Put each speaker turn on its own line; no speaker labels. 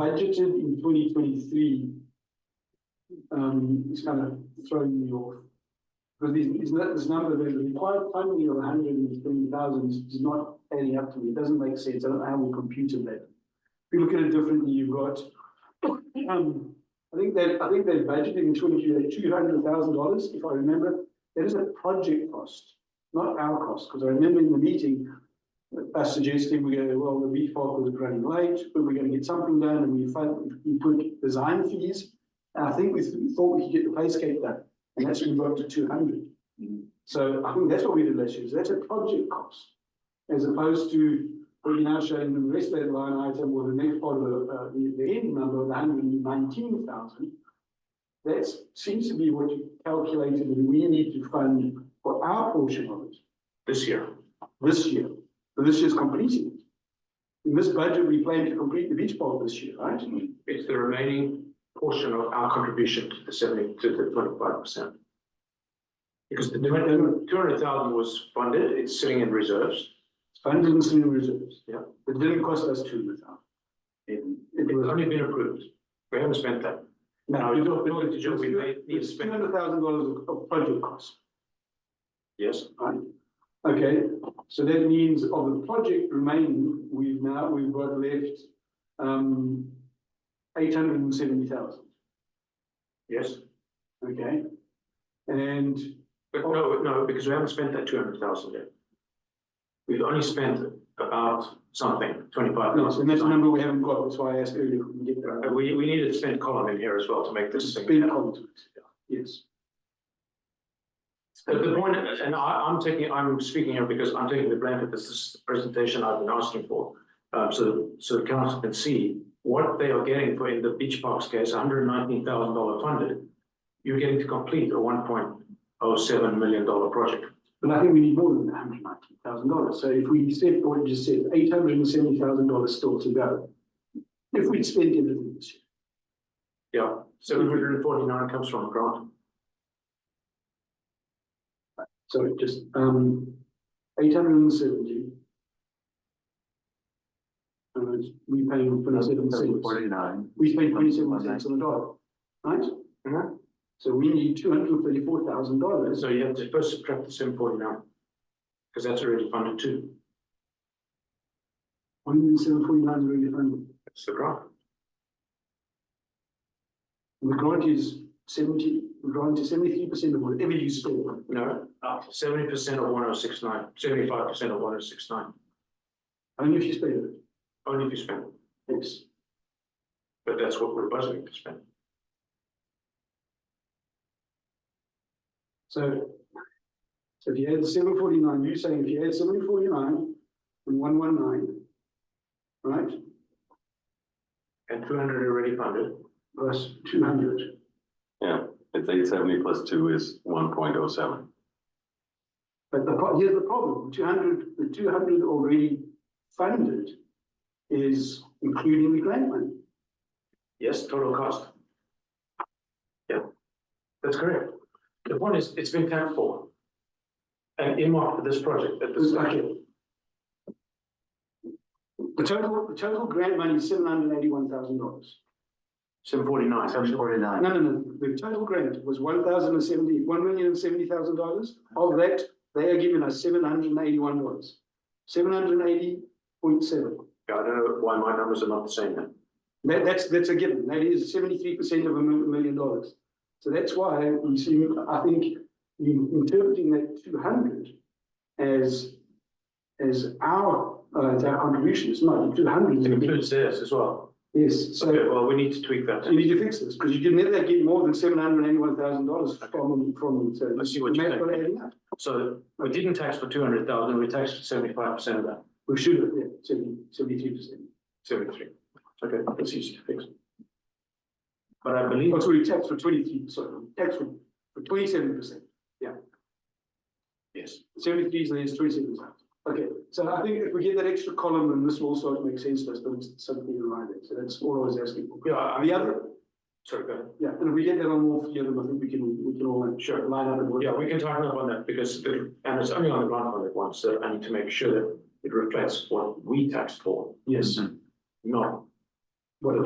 budgeted in twenty twenty-three. Um, it's kind of throwing me off. Because these, these, nu- this number, the required funding of hundred and twenty thousand is not adding up to me, it doesn't make sense, I don't know how we computed that. If you look at it differently, you've got, um, I think they, I think they budgeted in twenty-three, two hundred thousand dollars, if I remember. That is a project cost, not our cost, because I remember in the meeting, us suggesting we go, well, the beef park was running late, but we're gonna get something done, and we fin- we put design fees. And I think we th- thought we could get the place gate done, and that's when we got to two hundred. So I think that's what we did last year, is that's a project cost. As opposed to, what you're now showing the rest of that line item, or the next part of the, uh, the, the end number of hundred and nineteen thousand. That seems to be what you calculated, and we need to fund for our portion of it
this year.
this year, but this year's completing it. In this budget, we plan to complete the beach park this year, right?
It's the remaining portion of our contribution to the seventy, to the twenty-five percent. Because the two hundred thousand was funded, it's sitting in reserves.
It's Funded in senior reserves.
Yeah.
It didn't cost us two hundred thousand. It it
It's
was.
only been approved. We haven't spent that. Now, you don't build it to just, we may need to
Two
spend,
hundred thousand dollars of project costs,
yes,
right? Okay, so that means of the project remaining, we've now, we've got left, um, eight hundred and seventy thousand,
yes.
okay? And
But no, no, because we haven't spent that two hundred thousand yet. We've only spent about something, twenty-five
Yes,
thousand. Uh,
and that's a number we haven't got, that's why I asked earlier if we can get that.
We, we need to spend column in here as well to make this thing.
Spin onto it, yes.
The, the point, and I, I'm taking, I'm speaking here because I'm taking the blame for this, this is the presentation I've been asking for. Um, so, so the council can see what they are getting for in the beach parks case, hundred and nineteen thousand dollar funded. You're getting to complete a one point oh seven million dollar project.
But I think we need more than hundred nineteen thousand dollars, so if we said, what you just said, eight hundred and seventy thousand dollars still to go. If we'd spent everything this year,
Yeah, seven hundred and forty-nine comes from a grant.
so it just, um, eight hundred and seventy. And it's- we pay twenty-seven cents,
Forty-nine.
we spent twenty-seven cents on the dollar, right?
Mhm.
So we need two hundred and thirty-four thousand dollars,
So you have to first subtract the seven forty-nine. Because that's already funded too.
one hundred and seven forty-nine is really funded.
That's the grant.
The grant is seventy, the grant is seventy-three percent of whatever you spend.
No, seventy percent of one oh six nine, seventy-five percent of one oh six nine,
Only if you spend it,
only if you spend it.
yes.
But that's what we're budgeting to spend.
So. So if you add seven forty-nine, you're saying if you add seven forty-nine and one one nine. Right,
And two hundred already funded.
plus two hundred,
Yeah, it's eight seventy plus two is one point oh seven.
but the, pro- here's the problem, two hundred, the two hundred already funded. Is including the grant money,
Yes, total cost. Yeah, that's correct. The point is, it's been capped for. And earmarked for this project at this.
okay. The total, the total grant money is seven hundred eighty-one thousand dollars.
Seven forty-nine. Seven forty-nine.
No, no, no, the total grant was one thousand and seventy, one million and seventy thousand dollars. Of that, they are giving us seven hundred and eighty-one dollars. Seven hundred and eighty point seven.
Yeah, I don't know why my numbers are not the same then.
That, that's, that's a given. That is seventy-three percent of a mil- million dollars. So that's why we see, I think, you interpreting that two hundred as, as our, uh, as our contribution is not two
It
hundred.
includes theirs as well.
Yes, so.
Okay, well, we need to tweak that.
So you need to fix this, because you can never get more than seven hundred and eighty-one thousand dollars from, from. so
Let's see what
the
you
math
think.
will add up.
So we didn't tax for two hundred thousand, we taxed seventy-five percent of that,
We should have, yeah, seventy, seventy-three percent.
seventy-three. Okay, that's easy to fix. But I believe,
Oh, sorry, tax for twenty-three, sorry, tax for, for twenty-seven percent.
yes,
Seventy-three is less twenty-seven percent. Okay, so I think if we get that extra column, then this will sort of make sense to us, but it's something in mind, so that's all I was asking for.
yeah, I
And the other,
sorry, go ahead.
yeah, and if we get that on all three of them, I think we can, we can all, sure, line up. and work.
Yeah, we can tighten up on that because, the- and it's only on the grant fund at once, so I need to make sure that it reflects what we taxed for,
Yes,
not
Well,